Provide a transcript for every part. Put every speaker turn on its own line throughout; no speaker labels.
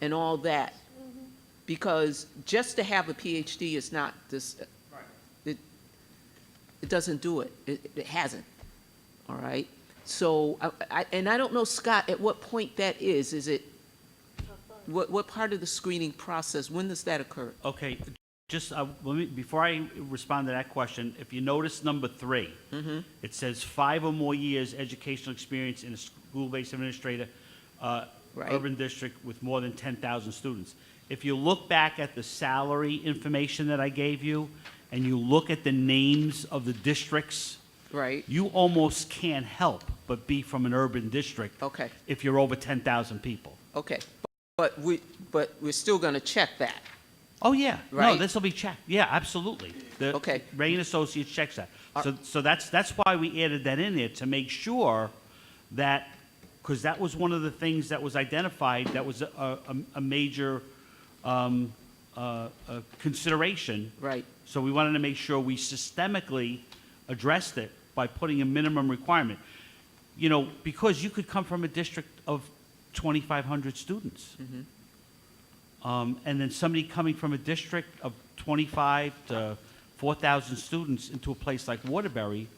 and all that. Because just to have a PhD is not this, it, it doesn't do it. It, it hasn't, all right? So, I, I, and I don't know, Scott, at what point that is. Is it, what, what part of the screening process, when does that occur?
Okay, just, uh, let me, before I respond to that question, if you notice number 3 it says five or more years educational experience in a school-based administrator, uh,
Right.
urban district with more than 10,000 students. If you look back at the salary information that I gave you, and you look at the names of the districts,
Right?
you almost can't help but be from an urban district.
Okay.
If you're over 10,000 people.
Okay, but we, but we're still gonna check that.
Oh, yeah. No,
Right?
this will be checked. Yeah, absolutely. The
Okay.
Ray and Associates checks that.
Are-
So, so that's, that's why we added that in there, to make sure that, because that was one of the things that was identified, that was a, a, a major, um, uh, uh, consideration.
Right.
So we wanted to make sure we systemically addressed it by putting a minimum requirement. You know, because you could come from a district of 2,500 students. Um, And then somebody coming from a district of 25 to 4,000 students into a place like Waterbury,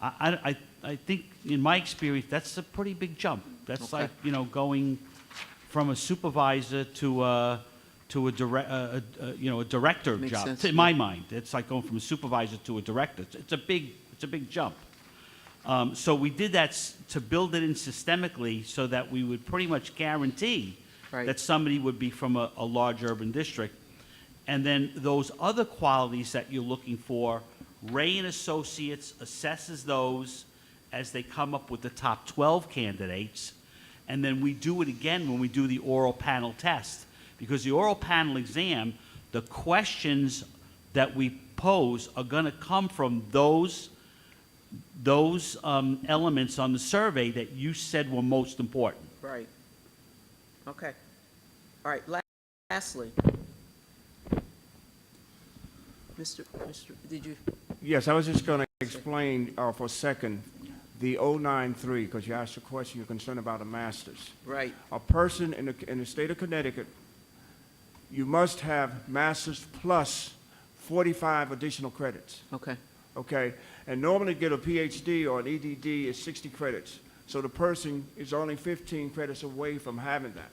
I, I, I- I think, in my experience, that's a pretty big jump. That's
Okay.
like, you know, going from a supervisor to a, to a direct, you know, a director
Makes
job.
sense,
In my mind, it's like going from a supervisor to a director. It's- It's a big, it's a big jump. Um, So we did that s- to build it in systemically so that we would pretty much guarantee
Right.
that somebody would be from a, a large urban district. And then those other qualities that you're looking for, Ray and Associates assesses those as they come up with the top 12 candidates. And then we do it again when we do the oral panel test. Because the oral panel exam, the questions that we pose are going to come from those those um, elements on the survey that you said were most important.
Right. Okay. All right, la- lastly. Mr., Mr., did you,
Yes, I was just going to explain uh, for a second, the 093, because you asked a question, you're concerned about a master's.
right,
A person in the, in the state of Connecticut, you must have master's plus 45 additional credits,
okay,
okay? And normally to get a PhD or an EDD is 60 credits. So the person is only 15 credits away from having that.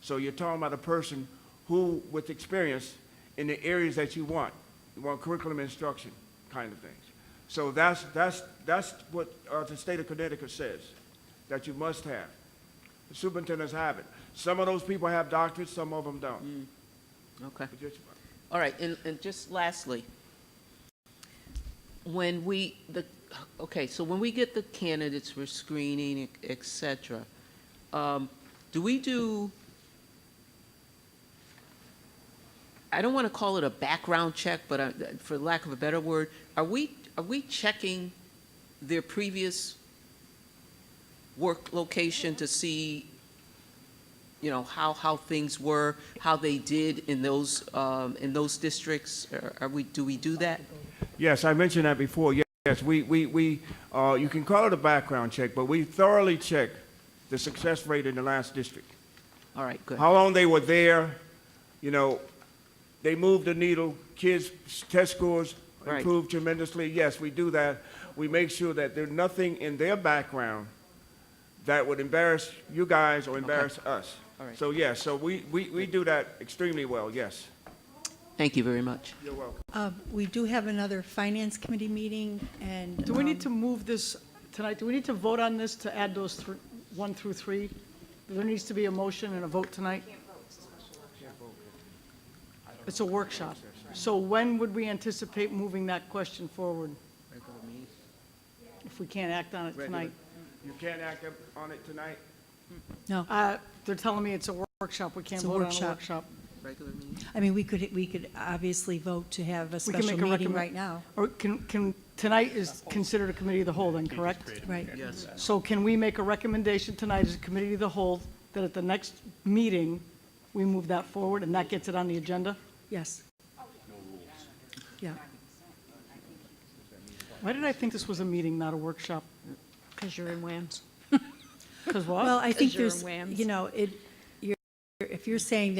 So you're talking about a person who, with experience in the areas that you want, you want curriculum instruction kind of things. So that's, that's, that's what uh, the state of Connecticut says, that you must have. The superintendents have it. Some of those people have doctorates, some of them don't.
okay.
But just-
All right, and, and just lastly, when we, the, okay, so when we get the candidates for screening, et cetera, um, do we do, I don't want to call it a background check, but uh, for lack of a better word, are we, are we checking their previous work location to see you know, how, how things were, how they did in those, um, in those districts? Are- Are we, do we do that?
Yes, I mentioned that before. Ye- Yes, we, we, we, uh, you can call it a background check, but we thoroughly check the success rate in the last district.
All right, good.
How long they were there, you know, they moved the needle, kids' test scores
Right.
improved tremendously. Yes, we do that. We make sure that there's nothing in their background that would embarrass you guys or embarrass us.
All right.
So yes, so we, we, we do that extremely well, yes.
Thank you very much.
You're welcome.
Uh, We do have another Finance Committee meeting, and.
Do we
um,
need to move this tonight? Do we need to vote on this to add those thr- one through three? There needs to be a motion and a vote tonight? It's a workshop. So when would we anticipate moving that question forward? If we can't act on it tonight?
You can't act up on it tonight?
No,
Uh, They're telling me it's a workshop. We can't
It's a
vote on a
workshop.
workshop.
Regular meeting?
I mean, we could, we could obviously vote to have a
We
special
can make a
meeting
recommend-
right now.
Or can, can, tonight is considered a committee of the whole then, correct?
Right.
Yes.
So can we make a recommendation tonight as a committee of the whole that at the next meeting, we move that forward and that gets it on the agenda?
Yes. Yeah,
Why did I think this was a meeting, not a workshop?
Because you're in WAMs.
Because
well,
what?
I think
As your
there's,
whims.
you know, it, you're, if you're saying that